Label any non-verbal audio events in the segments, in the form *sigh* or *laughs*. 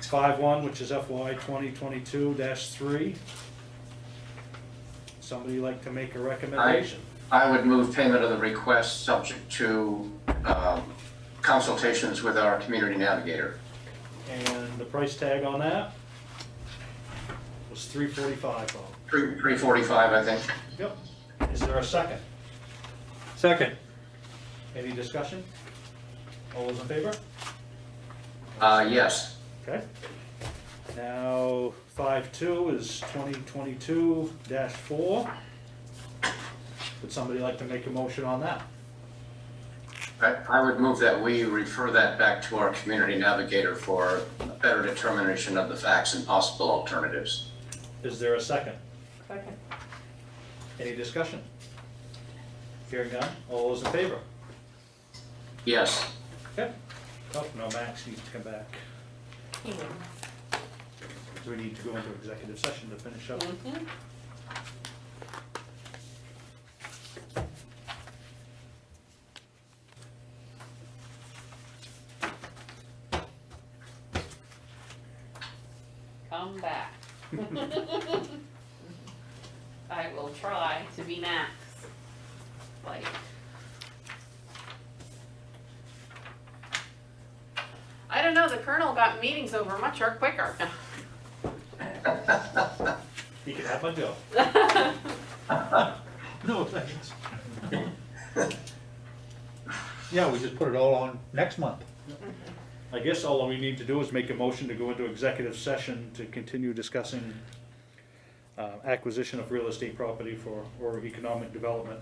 Five one, which is FY twenty twenty-two three. Somebody like to make a recommendation? I would move payment of the request subject to um, consultations with our community navigator. And the price tag on that was three forty-five, Bob. Three 345, I think. Yep. Is there a second? Second. Any discussion? All those in favor? Uh, Yes. Okay. Now, five two is twenty twenty-two four. Would somebody like to make a motion on that? I I would move that we refer that back to our community navigator for a better determination of the facts and possible alternatives. Is there a second? Second. Any discussion? Hearing none, all those in favor? Yes. Okay. Oh, no, Max needs to come back. Do we need to go into executive session to finish up? Come back. I will try to be Max, like. I don't know, the colonel got meetings over much or quicker. He can have my bill. No, thanks. Yeah, we just put it all on next month. I guess all we need to do is make a motion to go into executive session to continue discussing uh, acquisition of real estate property for, or economic development.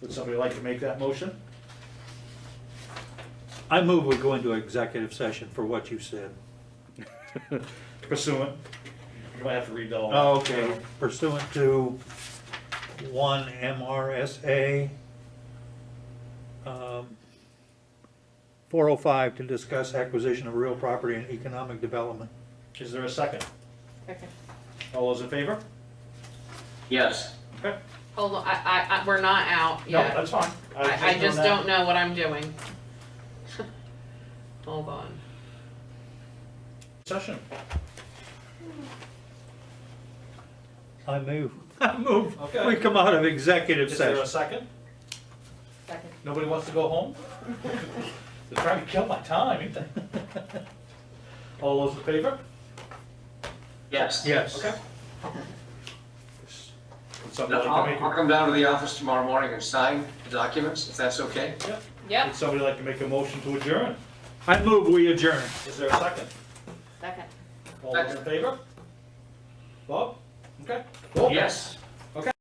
Would somebody like to make that motion? I move we go into executive session for what you said. Pursuant, you might have to read all. Oh, Okay. Pursuant to one MRSA, um, 405 to discuss acquisition of real property and economic development. Is there a second? Second. All those in favor? Yes. Okay. Hold on, I, I, I, we're not out No, yet. that's fine. was I, I on just that. don't know what I'm doing. *laughs* Hold on. Session. I move. *laughs* I move. Okay. We come out of executive Is there a session. second? Second. Nobody wants to go home? They're trying to kill my time, ain't they? All those in favor? Yes. Yes. Okay. Would somebody I'll like to I'll make, come down to the office tomorrow morning and sign the documents, if that's okay. a- Yep, would somebody like to make a motion to adjourn? I move we adjourn. Is there a second? second. All those in favor? Bob? Okay. Cool. Yes.